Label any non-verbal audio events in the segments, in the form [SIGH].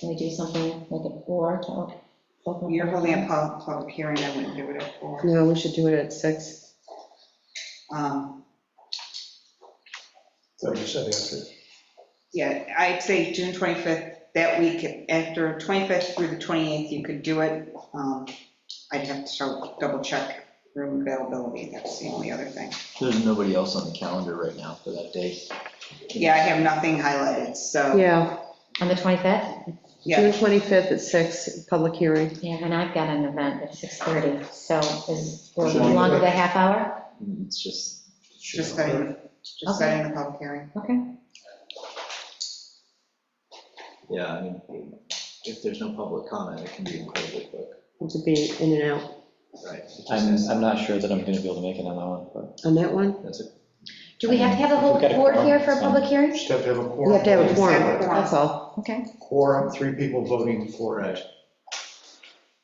Can we do something like at four to op- open? You're holding a pub- public hearing, I wouldn't do it at four. No, we should do it at six. Um, So you said after. Yeah, I'd say June 25th, that week, after 25th through the 28th, you could do it. Um, I'd have to show- double check room availability, that's the only other thing. There's nobody else on the calendar right now for that day. Yeah, I have nothing highlighted, so, Yeah, On the 25th? yeah, June 25th at six, public hearing. Yeah, and I've got an event at 6:30, so is, we're Should we do longer it? than a half hour? It's just, just setting, just setting the public hearing. Okay. yeah, I mean, if there's no public comment, it can be incredibly quick. To be in and out Right. I'm, I'm not sure that I'm gonna be able to make it on that one, on that one. but that's it. Do we have to have a If whole we've got a board quorum, here for a it's fine. public hearing? Just have to have a quorum. You have to have a quorum, Quorum. that's all. Okay. Quorum, three people voting for it. Right.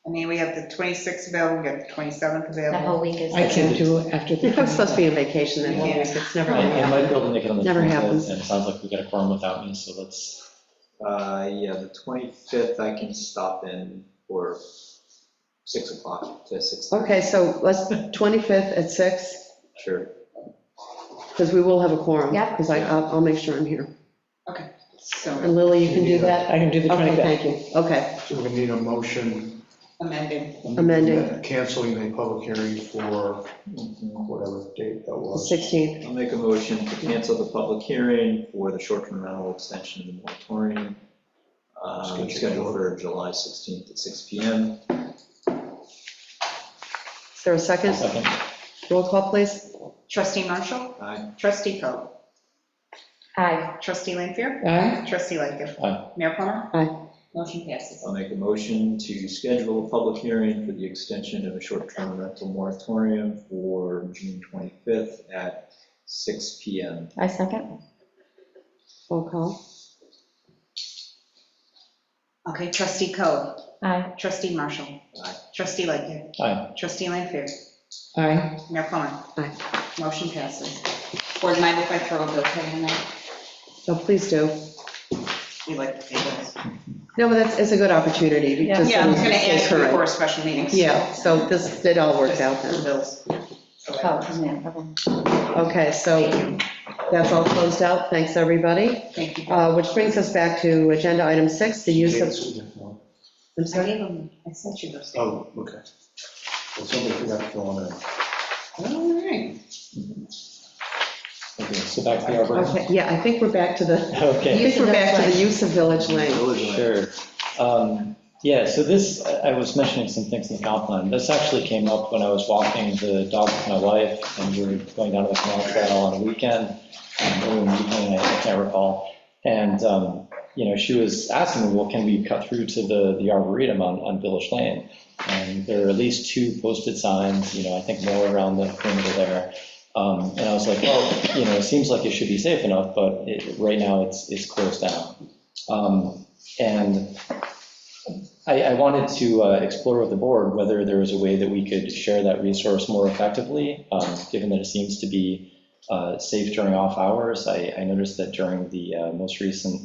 I mean, we have the 26th available, we have the 27th That whole available. week is. I can't do it after the. [LAUGHS] I'm supposed to be on vacation that whole week, it's never I I gonna might be able to make it on the Never 25th, happens. and it sounds like we got a quorum without me, so let's, Uh, yeah, the 25th, I can stop in for 6 o'clock to six. happen. Okay, so let's, 25th at six, Sure. because we will have a quorum. Yep. Because I, I'll I'll make sure I'm here. And So Lily, you can do that? I can do the Okay, 25th. thank you, okay. So we need a motion amended, Amending. canceling the public hearing for Mm-hmm. whatever date that The was. 16th, I'll make a motion to cancel the public hearing for the short-term rental extension of the moratorium, um, scheduled for July 16th at six PM. is there a second? second. Roll call, please. trustee Marshall, Aye. trustee Coe, Aye. trustee Lanfair, Aye. trustee Lightgev. Aye. Mayor Plummer? Aye. Motion passes. I'll make a motion to schedule a public hearing for the extension of a short-term rental moratorium for June 25th at six PM. I second. Roll call. Okay, trustee Coe, Aye. trustee Marshall, Aye. trustee Lightgev, Aye. trustee Lanfair, Aye. Mayor Plummer? Aye. Motion passes. Board mind if I throw a bill pay in there? Oh, please do. We like to pay bills. No, but that's, it's a good opportunity. to just- Yeah, I was gonna it's ask you correct. for a special meeting. Yeah, so this, it all worked out Just then. Bills. So Oh, I- yeah, okay. Okay, so that's all closed out. Thanks, everybody. Thank you. Uh, Which brings us back to agenda item six, the use of, I'm I sorry, gave them, I sent you those. Oh, okay. Well, somebody forgot to fill in. All right. Okay, so back to the Arbor. okay, yeah, I think we're back to the, I [LAUGHS] Okay, think we're back to the use of village lane. sure. Um, Yeah, so this, I I was mentioning some things in the comp plan. This actually came up when I was walking the dog with my wife, and we were going down to the canal trail on a weekend, um, early in the evening, I can't recall. And, um, you know, she was asking me, well, can we cut through to the, the Arboretum on, on Village Lane? And there are at least two posted signs, you know, I think more around the perimeter there. Um, And I was like, well, you know, it seems like it should be safe enough, but it, right now, it's, it's closed down. Um, And I, I wanted to uh, explore with the board whether there was a way that we could share that resource more effectively, um, given that it seems to be uh, safe during off hours. I, I noticed that during the uh, most recent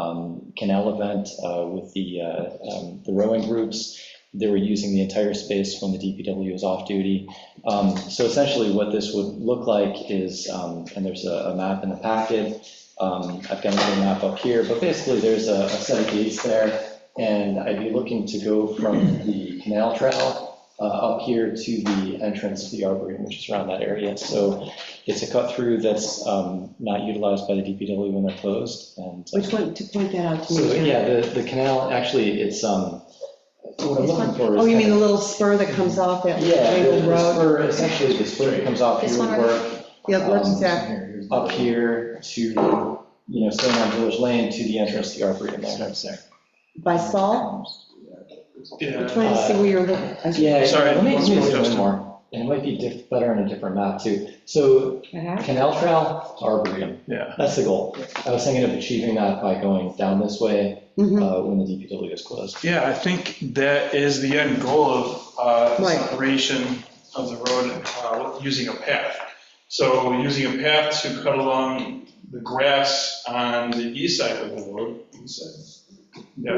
um, canal event uh, with the, uh, um, the rowing groups, they were using the entire space when the DPW was off duty. Um, So essentially what this would look like is, um, and there's a a map in the packet. um, I've got another map up here, but basically there's a a set of gates there. And I'd be looking to go from the canal trail uh, up here to the entrance to the arboretum, which is around that area. So it's a cut through that's um, not utilized by the DPW when they're closed, and. uh, Which one, to point that out to So, me. yeah, the, the canal, actually, it's, um, what I'm looking for is. Oh, you mean kind the of- little spur that comes off that Yeah, the- Raven the Road? spur, essentially, the spur that comes off This here one would or- work Yeah, let's, um, exact- up here to, you know, staying on Village Lane to the entrance to the arboretum there. by Saul? I'm Yeah. trying to see where you're looking. I- Yeah, Sorry, let me, let one me more zoom in question. more, and it might be diff- better on a different map, too. So Uh-huh. Canal Trail, Arboretum. Yeah. That's the goal. I was thinking of achieving that by going down this way Mhm. uh, when the DPW is closed. Yeah, I think that is the end goal of uh, Right. separation of the road uh, using a path. So using a path to cut along the grass on the east side of the road, east side,